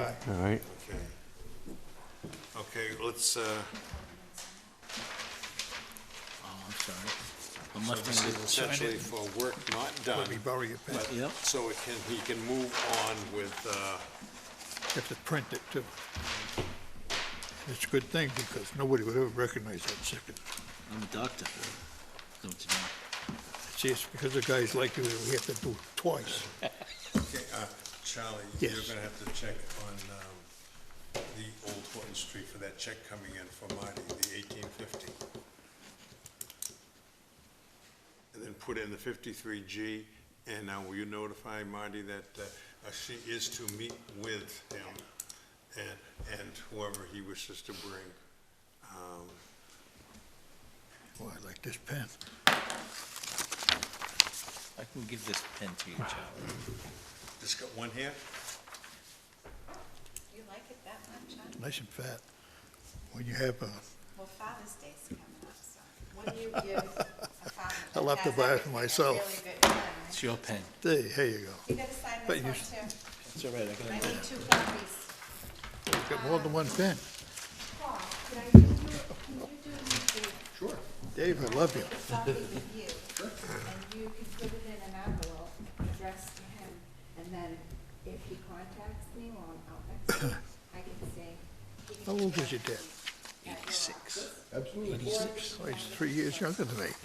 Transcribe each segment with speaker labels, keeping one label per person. Speaker 1: Aye.
Speaker 2: all right?
Speaker 1: Okay. Okay, let's, uh,
Speaker 3: Oh, I'm sorry. I'm
Speaker 1: so this is
Speaker 3: left-handed.
Speaker 1: essentially for work not done,
Speaker 4: You borrow your pen,
Speaker 1: but,
Speaker 3: Yep.
Speaker 1: so it can, he can move on with, uh,
Speaker 4: you have to print it too. It's a good thing because nobody would ever recognize that signature.
Speaker 3: I'm a doctor. Know what you mean.
Speaker 4: See, it's because of guys like you that we have to do it twice.
Speaker 5: Okay, uh, Charlie, you're
Speaker 4: Yes.
Speaker 5: gonna have to check on, um, the Old Horton Street for that check coming in for Marty, the eighteen fifty.
Speaker 1: and then put in the fifty-three G. And now will you notify Marty that, uh, uh, she is to meet with him and, and whoever he wishes to bring? Um,
Speaker 4: Boy, I like this pen.
Speaker 3: I can give this pen to you, Charlie.
Speaker 1: Just got one here?
Speaker 6: You like it that much, huh?
Speaker 4: Nice and fat. When you have, uh,
Speaker 6: Well, Father's Day's coming up, so what do you give a father?
Speaker 4: I'll have to
Speaker 6: that has
Speaker 4: buy it for
Speaker 6: everything, a
Speaker 4: myself.
Speaker 6: really good gun?
Speaker 3: It's your pen.
Speaker 4: there, here you go.
Speaker 6: You gotta sign
Speaker 4: But you
Speaker 6: this one
Speaker 4: s-
Speaker 6: too.
Speaker 3: It's all right, I
Speaker 6: I
Speaker 3: got it.
Speaker 6: need two copies.
Speaker 4: You've got more than one pen.
Speaker 6: Paul, could I, can you, can you do me
Speaker 4: Sure. Dave, I love you.
Speaker 6: the copy with you? And you can put it in an envelope addressed to him, and then if he contacts me while I'm out next week, I can say. he can
Speaker 4: How old was your
Speaker 6: contact
Speaker 4: dad?
Speaker 6: me at your
Speaker 3: Eighty-six.
Speaker 4: Oh, he's three years younger than me.
Speaker 6: office.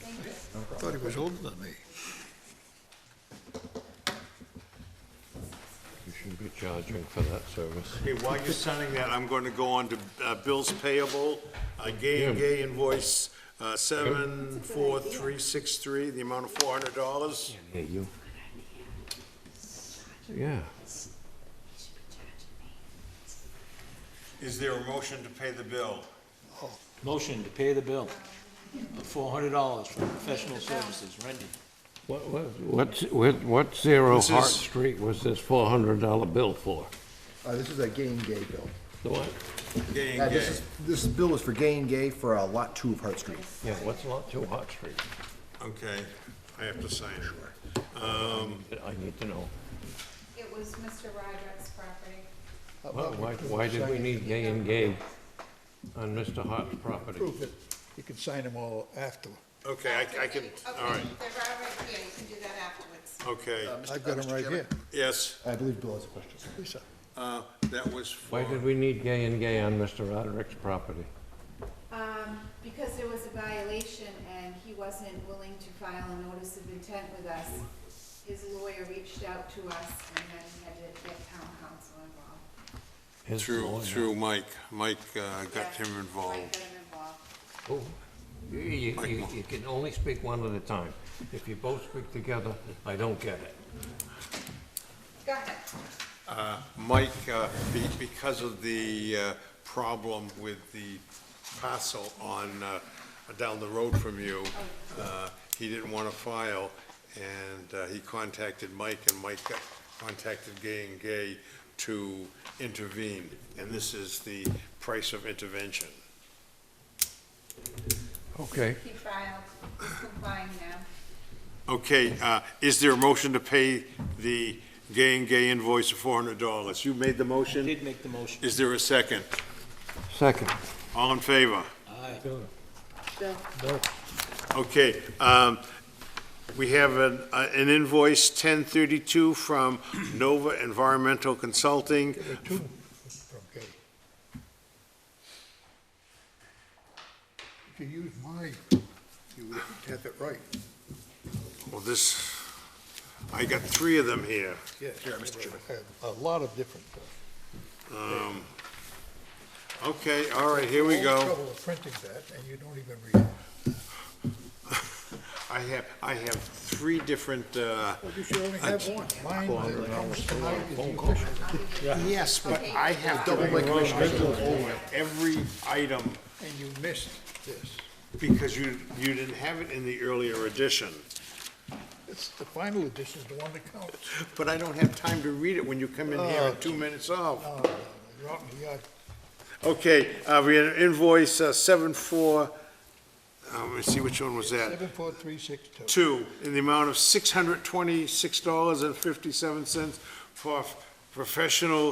Speaker 6: Thank you.
Speaker 4: Thought he was older than me.
Speaker 2: You shouldn't be charging for that service.
Speaker 1: Okay, while you're signing that, I'm going to go on to uh, bills payable, uh, Gay and Gay invoice uh, 74363, the amount of $400.
Speaker 2: Yeah, you. Yeah,
Speaker 1: Is there a motion to pay the bill?
Speaker 3: Motion to pay the bill of four hundred dollars for professional services rendered.
Speaker 2: what, what, what's, what- what Zero
Speaker 1: This
Speaker 2: Hart
Speaker 1: is-
Speaker 2: Street was this four hundred dollar bill for?
Speaker 7: Uh, this is a gay and gay bill.
Speaker 2: The what?
Speaker 1: Gay
Speaker 7: Uh,
Speaker 1: and
Speaker 7: this
Speaker 1: Gay.
Speaker 7: is, this bill is for gay and gay for uh, lot two of Hart Street.
Speaker 2: Yeah, what's lot two Hart Street?
Speaker 1: Okay, I have to sign it.
Speaker 2: I need to know.
Speaker 6: It was Mr. Roderick's property.
Speaker 2: Why, why- why did we need gay and gay on Mr. Hart's property?
Speaker 4: Prove it. You can sign them all after.
Speaker 1: Okay, I- I can, all right,
Speaker 6: Okay, they're all right here, you can do that afterwards.
Speaker 1: okay,
Speaker 4: I've got them right here.
Speaker 1: yes,
Speaker 7: I believe Bill has a question.
Speaker 4: Lisa,
Speaker 1: uh, that was
Speaker 2: Why
Speaker 1: for,
Speaker 2: did we need gay and gay on Mr. Roderick's property?
Speaker 6: Um, because there was a violation and he wasn't willing to file a notice of intent with us, his lawyer reached out to us and then he had to get town council involved.
Speaker 2: His
Speaker 1: through,
Speaker 2: lawyer.
Speaker 1: through Mike. Mike uh, got
Speaker 6: Yeah,
Speaker 1: him
Speaker 6: Mike
Speaker 1: involved.
Speaker 6: got him involved.
Speaker 2: Oh, You, you- you- you can only speak one at a time. If you both speak together, I don't get it.
Speaker 6: Go ahead.
Speaker 1: Uh, Mike, uh, be- because of the uh, problem with the parcel on, uh, down the road from you, uh, he didn't want to file, and uh, he contacted Mike, and Mike got- contacted Gay and Gay to intervene, and this is the price of intervention.
Speaker 2: Okay.
Speaker 6: He filed, he's complying now.
Speaker 1: Okay, uh, is there a motion to pay the Gay and Gay invoice of $400? You made the motion?
Speaker 3: Did make the motion.
Speaker 1: Is there a second?
Speaker 2: Second.
Speaker 1: All in favor?
Speaker 3: Aye.
Speaker 1: Okay, um, we have an, uh, an invoice ten thirty-two from Nova Environmental Consulting.
Speaker 4: from gay. If you use mine, you would have it right.
Speaker 1: Well, this, I got three of them here.
Speaker 4: Yes. Yeah, Mr. Chairman. A lot of different. uh,
Speaker 1: Okay, all right, here we
Speaker 4: All the
Speaker 1: go.
Speaker 4: trouble of printing that, and you don't even read it.
Speaker 1: I have, I have three different, uh,
Speaker 4: Well, you should only have one. Mine, that comes from mine is the official.
Speaker 1: yes, but I have double my over every item
Speaker 4: and you missed this.
Speaker 1: because you, you didn't have it in the earlier edition.
Speaker 4: It's the final edition, is the one that counts.
Speaker 1: But I don't have time to read it when you come in here at two minutes off.
Speaker 4: No, no, You're out in the yard.
Speaker 1: Okay, uh, we had an invoice, uh, seven four, uh, let me see, which one was that?
Speaker 4: Seven, four, three, six, two.
Speaker 1: Two, in the amount of six hundred twenty-six dollars and fifty-seven cents for f- professional